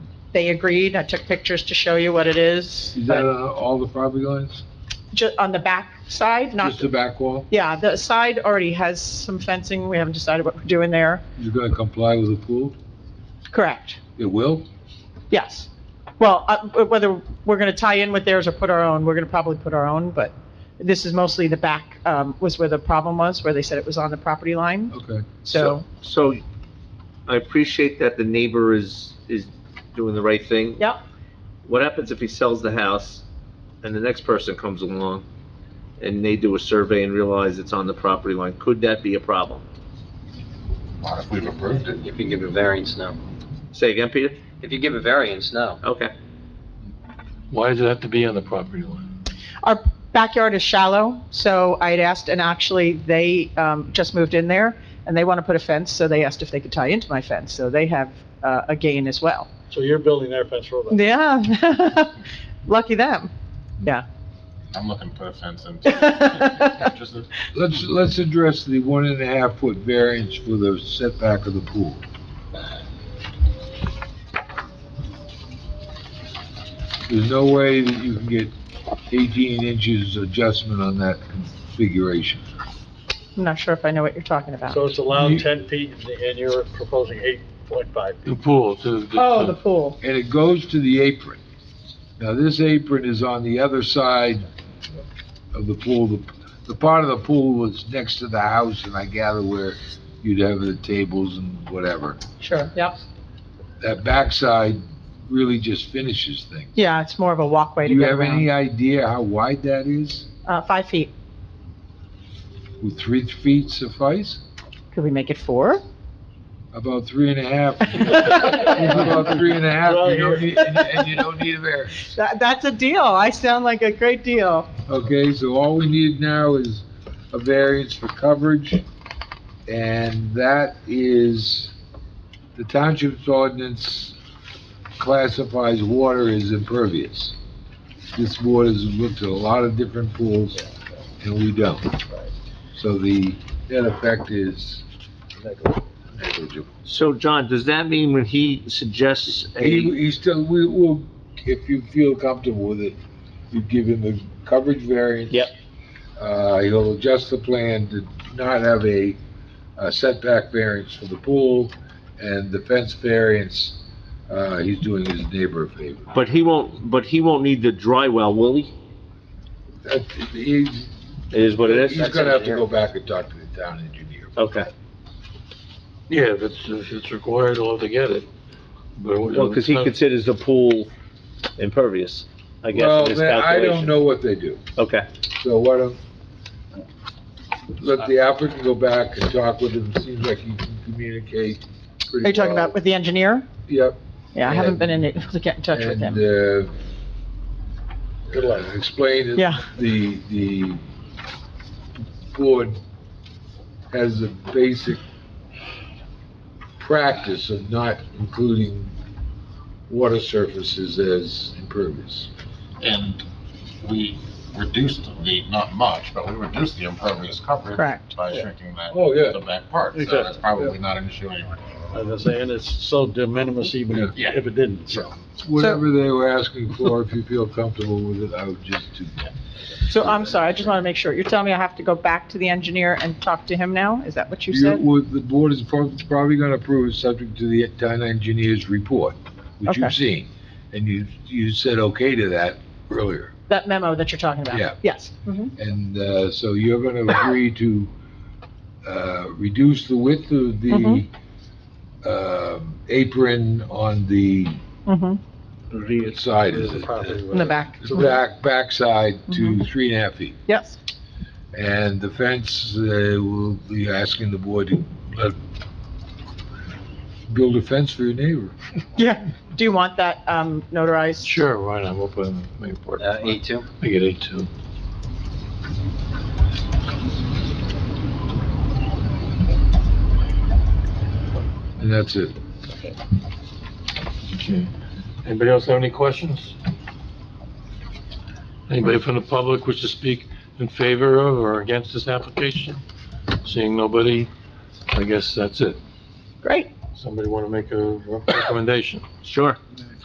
They agreed. I took pictures to show you what it is. Is that but uh, all the property lines? ju- on the back side, not, Just the back wall? yeah, the side already has some fencing. We haven't decided what we're doing there. You're gonna comply with the pool? Correct. It will? Yes. Well, uh, w- whether we're going to tie in with theirs or put our own, we're going to probably put our own, but this is mostly the back, um, was where the problem was, where they said it was on the property line. Okay. So, So I appreciate that the neighbor is, is doing the right thing. yep. What happens if he sells the house and the next person comes along and they do a survey and realize it's on the property line? Could that be a problem? Not if we've approved it. If you give a variance, no. Say again, Peter? If you give a variance, no. Okay. Why does it have to be on the property line? Our backyard is shallow, so I had asked, and actually, they um, just moved in there, and they want to put a fence, so they asked if they could tie into my fence, so they have uh, a gain as well. So you're building their fence for them? Yeah, lucky them, yeah. I'm looking to put a fence in. Just a- Let's, let's address the one and a half foot variance for the setback of the pool. There's no way that you can get 18 inches adjustment on that configuration. I'm not sure if I know what you're talking about. So it's allowed You- ten feet and you're proposing eight point five feet? The pool, to the... Oh, the pool, And it goes to the apron. Now, this apron is on the other side of the pool. The- The part of the pool was next to the house, and I gather where you'd have the tables and whatever. sure, yep. That backside really just finishes things. Yeah, it's more of a walkway Do to you get have any around. idea how wide that is? Uh, Five feet, Would three feet suffice? could we make it four? About three and a half? About three and a half, you don't need, and and you don't need a variance. That- That's a deal, I sound like a great deal. Okay, so all we need now is a variance for coverage, and that is, the township's ordinance classifies water as impervious. This board has looked at a lot of different pools, and we don't. So the net effect is negligible. So John, does that mean when he suggests He, a, he still, we will, if you feel comfortable with it, you give him the coverage variance. Yep. Uh, he'll adjust the plan to not have a a setback variance for the pool and the fence variance, uh, he's doing his neighbor a favor. but he won't, but he won't need the dry well, will he? That, he's, It is what it is? he's gonna have to go back and talk to the town engineer. Okay. Yeah, if it's, if it's required, I'll have to get it. But what- Well, because he considers the pool impervious, I guess, Well, in his then, I don't calculation. know what they do, Okay. so why don't, let the applicant go back and talk with him, seems like he can communicate pretty well. Are you talking about with the engineer? Yep. Yeah, I haven't And- been in- able to get in touch with him. And, uh, uh, explain Yeah. that the, the board has a basic practice of not including water surfaces as impervious. And we reduced the, not much, but we reduced the impervious uh, coverage. Correct. By shrinking that. Oh, yeah. The back part, so Exactly. that's probably not an issue anyway. As I say, and it's so de minimis even if Yeah. if it didn't, so. Whatever they were asking for, if you feel comfortable with it, I would just do that. So I'm sorry, I just want to make sure. You're telling me I have to go back to the engineer and talk to him now? Is that what you You, said? would- the board is prob- probably gonna approve it subject to the town engineer's report, which you've Okay. seen. And you, you said okay to that earlier. That memo that you're talking about? Yeah. Yes. Mhm. And uh, so you're going to agree to uh, reduce the width of the Mhm. um, apron on the Mhm. side of It's a property the, with In the it. back? the back, backside Mm-hmm. to three and a half feet. Yes. And the fence, uh, will be asking the board to let- build a fence for your neighbor. Yeah. Do you want that um, notarized? Sure, why not, we'll put it in the main part. Uh, A2? Make it A2. And that's it. Okay. Anybody else have any questions? Anybody from the public wish to speak in favor of or against this application? Seeing nobody, I guess that's it. Great. Somebody want to make a recommendation? Sure.